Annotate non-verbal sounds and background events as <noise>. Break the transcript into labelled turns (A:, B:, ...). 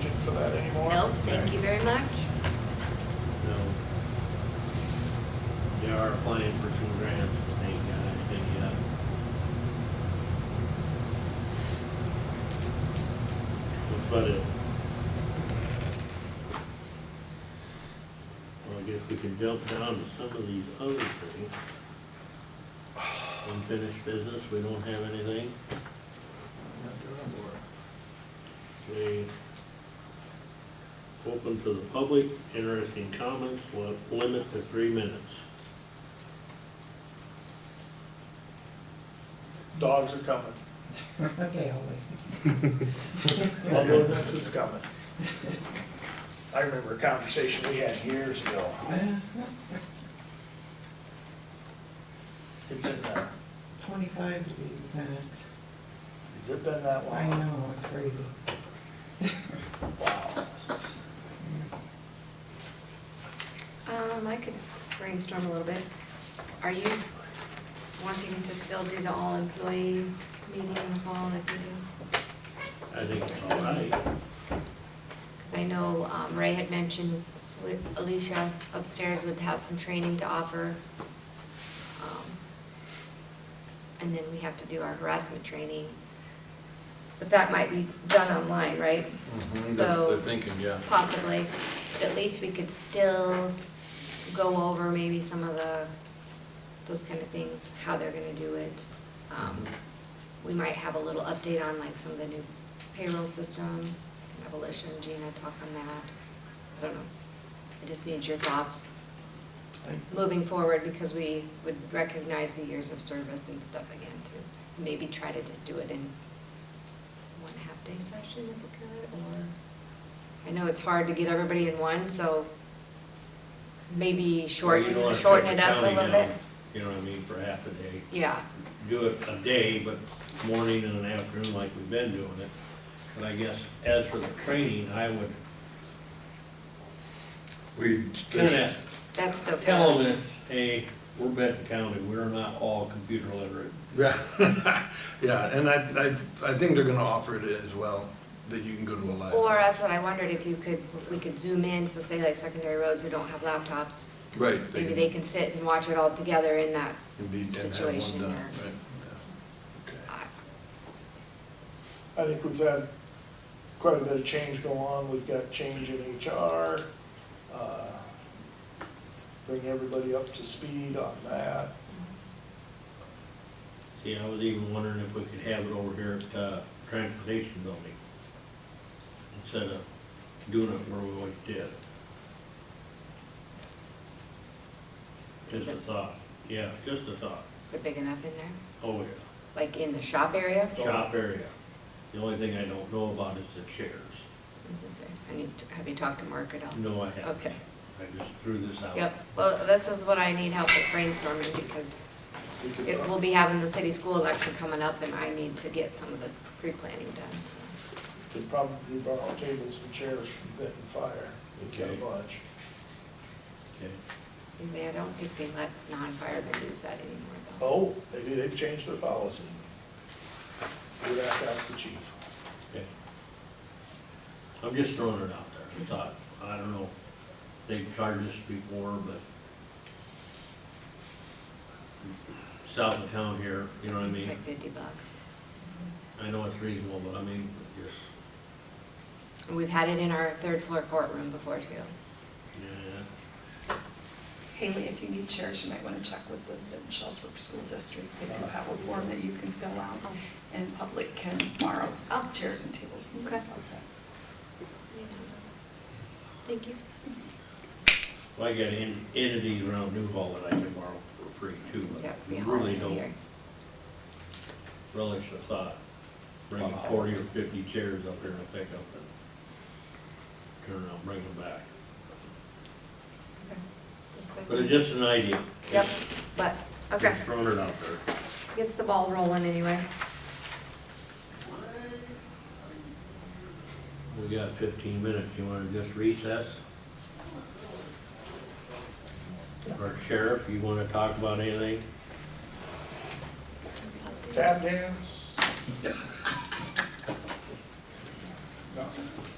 A: for that anymore?
B: Nope, thank you very much.
C: No. They are applying for two grants, but they uh, ain't got anything yet. But it. Well, I guess we can jump down to some of these other things. Unfinished business, we don't have anything. Okay. Open to the public, interesting comments, will limit to three minutes.
A: Dogs are coming.
D: Okay, I'll wait.
A: Ambulance is coming. I remember a conversation we had years ago. It's in there.
D: Twenty-five to be exact. Oh,
A: Has it been that
D: I
A: long?
D: know, it's crazy.
A: Wow.
B: Um, I could brainstorm a little bit. Are you wanting to still do the all-employee meeting in the hall like we do?
C: I think oh, it's all right.
B: Because I know um, Ray had mentioned with Alicia upstairs would have some training to offer. Um, And then we have to do our harassment training. But that might be done online, right?
E: Mm-hmm.
B: So-
E: They're thinking, yeah.
B: Possibly, but at least we could still go over maybe some of the, those kind of things, how they're gonna do it. Um, We might have a little update on like some of the new payroll system, and abolition, Gina, talk on that. I don't know, I just need your thoughts moving forward, because we would recognize the years of service and stuff again too. Maybe try to just do it in one half-day session if we could, or I know it's hard to get everybody in one, so maybe
C: You don't
B: shorten,
C: wanna
B: shorten
C: shut
B: it
C: the
B: up a
C: county
B: little
C: down,
B: bit.
C: You know what I mean, for half a day.
B: Yeah,
C: Do it a day, but morning and an afternoon like we've been doing it. But I guess as for the training, I would
E: We,
C: kinda
B: that's still. good.
C: tell them that, hey, we're Benton County, we're not all computer literate.
E: <laughs> yeah, yeah, and I, I, I think they're gonna offer it as well, that you can go to a live.
B: Or uh, that's what I wondered, if you could, if we could zoom in, so say like secondary roads who don't have laptops,
E: Right.
B: maybe they can sit and watch it all together in that.
E: can be- and have one
B: situation
E: done,
B: or-
E: right, yeah, okay.
B: I-
A: I think we've had quite a bit of change go on. We've got change in HR. uh, Bring everybody up to speed on that.
C: See, I was even wondering if we could have it over here at, uh, Transportation Building. Instead of doing it where we always did. Just a thought, yeah, just a thought,
B: Is it big enough in there?
C: oh yeah,
B: Like in the shop area?
C: shop area. The only thing I don't know about is the chairs.
B: Does it say? And you've, have you talked to Mark at all?
C: No, I haven't.
B: Okay.
C: I just threw this out.
B: Yep, well, this is what I need help with brainstorming, because
A: We could- uh,
B: it, we'll be having the city school election coming up, and I need to get some of this pre-planning done, so.
A: Could probably borrow tables and chairs from Benton Fire. We've got a
C: Okay.
A: bunch.
C: Okay.
B: They, I don't think they let non-firemen use that anymore, though.
A: Oh, they do, they've changed their policy. We'd have to ask the chief.
C: Okay. I'm just throwing it out there, I thought, I don't know, if they've charged us before, but south of town here, you know what I
B: It's
C: mean?
B: like fifty bucks.
C: I know it's reasonable, but I mean, just,
B: And we've had it in our third floor courtroom before, too.
C: yeah,
F: Haley, if you need chairs, you might want to check with the the Shellsburg School District. They do have a form that you can fill out,
B: Oh.
F: and public can borrow
B: Oh.
F: chairs and tables and things
B: Okay.
F: like that.
B: Thank you.
C: well, I got en- entities around Newhall that I can borrow for free too, but
B: Yeah, we
C: I
B: all
C: really
B: have
C: don't
B: here.
C: relish the thought, bringing
A: Wow.
C: forty or fifty chairs up here to pick up and turn around, bring them back.
B: Okay. That's what I
C: But it's
B: thought.
C: just an idea.
B: Yep, but, okay,
C: Just throwing it out there.
B: gets the ball rolling anyway.
C: We got fifteen minutes, you wanna just recess? Or sheriff, you wanna talk about anything?
A: Tap dance? Nothing.